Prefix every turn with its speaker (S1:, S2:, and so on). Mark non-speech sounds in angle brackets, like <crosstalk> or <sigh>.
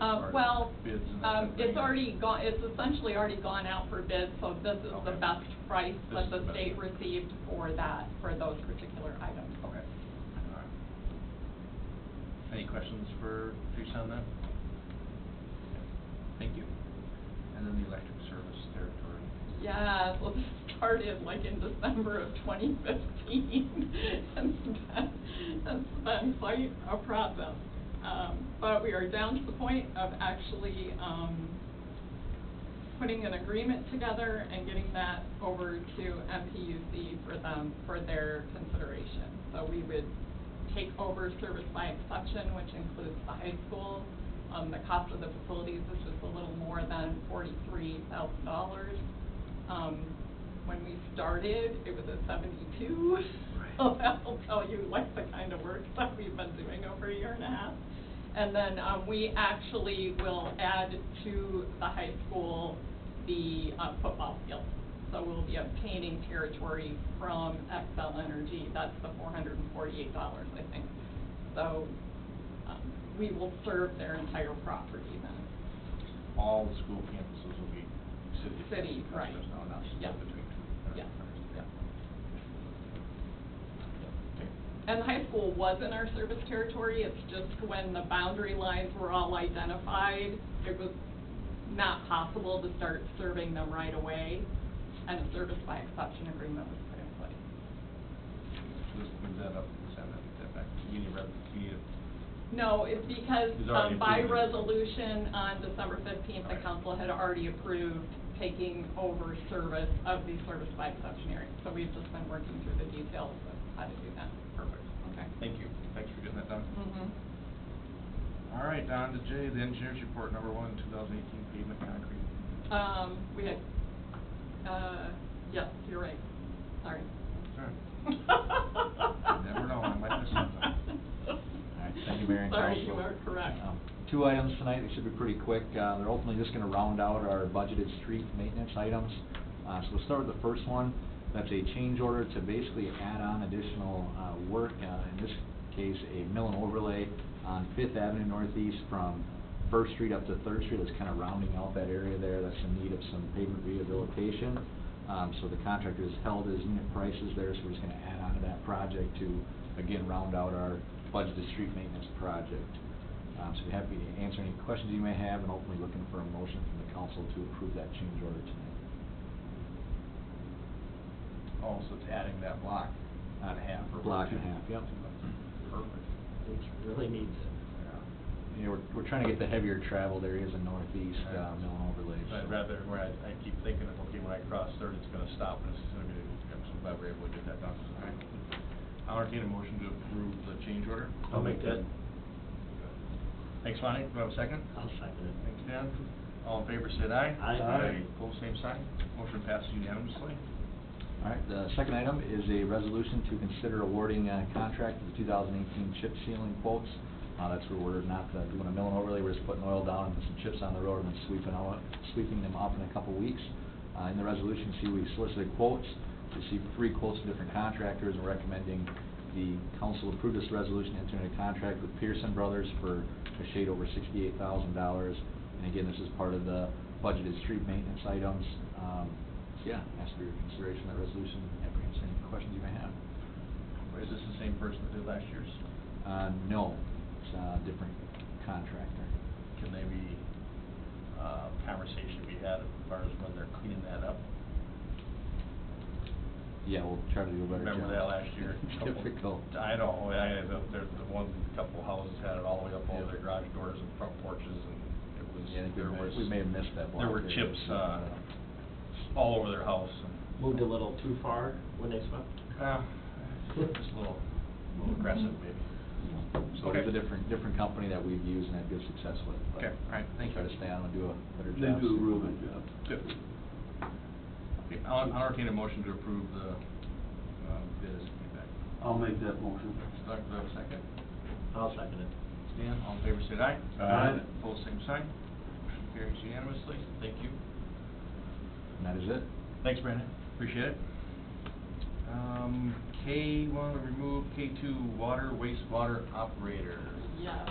S1: Uh, well,
S2: Bids and that
S1: um,
S2: type of
S1: it's
S2: thing.
S1: already gone, it's essentially already gone out for bid, so this is the
S2: Okay.
S1: best price
S2: This
S1: that
S2: is the
S1: the
S2: best.
S1: state received for that, for those particular items.
S2: Okay. All right. Any questions for Teresa on that? Thank you. And then the electric service territory.
S1: Yeah, well, this started like in December of twenty fifteen. <laughs> And that- that's been quite a process. Um, but we are down to the point of actually, um, putting an agreement together and getting that over to MPUC for them, for their consideration. So we would take over service by exception, which includes the high school. Um, the cost of the facilities is just a little more than forty-three thousand dollars. Um, when we started, it was at seventy-two. <laughs> So that'll tell you like the kind of work that we've been doing over a year and a half. And then, um, we actually will add to the high school the, uh, football field. So we'll be obtaining territory from Excel Energy, that's the four hundred and forty-eight dollars, I think. So, um, we will serve their entire property then.
S2: All the school campuses will be city.
S1: City, right.
S2: There's no announcement
S1: Yeah.
S2: between.
S1: Yeah, yeah.
S2: Okay.
S1: And the high school was in our service territory, it's just when the boundary lines were all identified, it was not possible to start serving them right away, and a service by exception agreement was put in place.
S2: Just move that up and send that, that back. You need rep, you need
S1: No, it's because
S2: It's already
S1: um, by
S2: approved.
S1: resolution on December fifteenth, the
S2: Okay.
S1: council had already approved taking over service of the service by exception area. So we've just been working through the details of how to do that.
S2: Perfect.
S1: Okay.
S2: Thank you. Thanks for getting that done.
S1: Mhm.
S2: All right, Don to Jay, the engineers report number one, two thousand eighteen pavement concrete.
S1: Um, we had, uh, yes, you're right, sorry.
S2: Sure.
S1: Never
S2: know, I might miss
S1: <laughs>
S2: something.
S3: All right, thank you, Mayor and
S1: Sorry,
S3: Council.
S1: you are correct.
S3: Um, Two items tonight, they should be pretty quick. Uh, They're ultimately just going to round out our budgeted street maintenance items. Uh, So we'll start with the first one. That's a change order to basically add on additional uh, work, uh, in this case, a mill and overlay on Fifth Avenue Northeast from First Street up to Third Street. That's kind of rounding out that area there that's in need of some pavement rehabilitation. Um, So the contractor has held his unit prices there, so we're just going to add on to that project to, again, round out our budgeted street maintenance project. Um, So be happy to answer any questions you may have, and ultimately looking for a motion from the council to approve that change order tonight.
S2: Oh, so it's adding that block on half or.
S3: Block
S2: two-
S3: and a half, yep.
S2: Perfect.
S4: Which really needs it.
S2: Yeah.
S3: You know, we're, we're trying to get the heavier traveled areas in northeast, uh, mill and overlays. so-
S2: I'd rather, where I, I keep thinking, of, okay, when I cross third, it's gonna stop, and it's gonna be, I'm so glad we're able to get that done. All right. I'll entertain a motion to approve the change order.
S4: I'll make that,
S2: Thanks, Lonnie. Do I have a second?
S4: I'll second it.
S2: Thanks, Dan. All in favor, say aye.
S4: Aye. Aye.
S2: Pull same sign. Motion passes unanimously.
S3: All right, the second item is a resolution to consider awarding a contract for the 2018 chip sealing quotes. Uh, That's where we're not uh, doing a mill and overlay, we're just putting oil down and put some chips on the road and then sweeping them up, sweeping them up in a couple weeks. Uh, In the resolution, see, we solicited quotes, received three quotes from different contractors, and recommending the council approve this resolution, enter into contract with Pearson Brothers for a shade over $68,000. And again, this is part of the budgeted street maintenance items. Um, so yeah, ask for your consideration of that resolution, happy to answer any questions you may have.
S2: Is this the same person that did last year's?
S3: Uh, no, it's a different contractor.
S2: Can they be, uh, conversation we had as far as when they're cleaning that up?
S3: Yeah, we'll try to do a better job.
S2: Remember that last year? Couple-
S3: <laughs> Difficult.
S2: I know, I, the, the, the one, couple houses had it all the way up over
S3: Yeah.
S2: their garage doors and front porches, and it was,
S3: Yeah, I think we
S2: there
S3: may-
S2: was...
S3: we may have missed that block
S2: There were
S3: there.
S2: chips, uh, all over their house, and,
S4: Moved a little too far when they swept.
S2: uh, just a little, a little aggressive, maybe.
S3: So it's a
S2: Okay.
S3: different, different company that we've used and had good success with. but
S2: Okay, all right, thank
S3: Try
S2: you.
S3: to stay on and do a better
S5: They
S3: job.
S5: do a
S3: soon.
S5: real good job.
S2: Good. Okay, I'll, I'll entertain a motion to approve the, um, bid as feedback.
S5: I'll make that motion.
S2: Doug, do I have a second?
S4: I'll second it.
S2: Stan, all in favor, say aye.
S5: Aye. Aye.
S2: Pose same sign. Motion carries unanimously. Thank you.
S3: And that is it.
S2: Thanks, Brandon. Appreciate it. Um, K one, remove K two, water wastewater operator.
S1: Yes.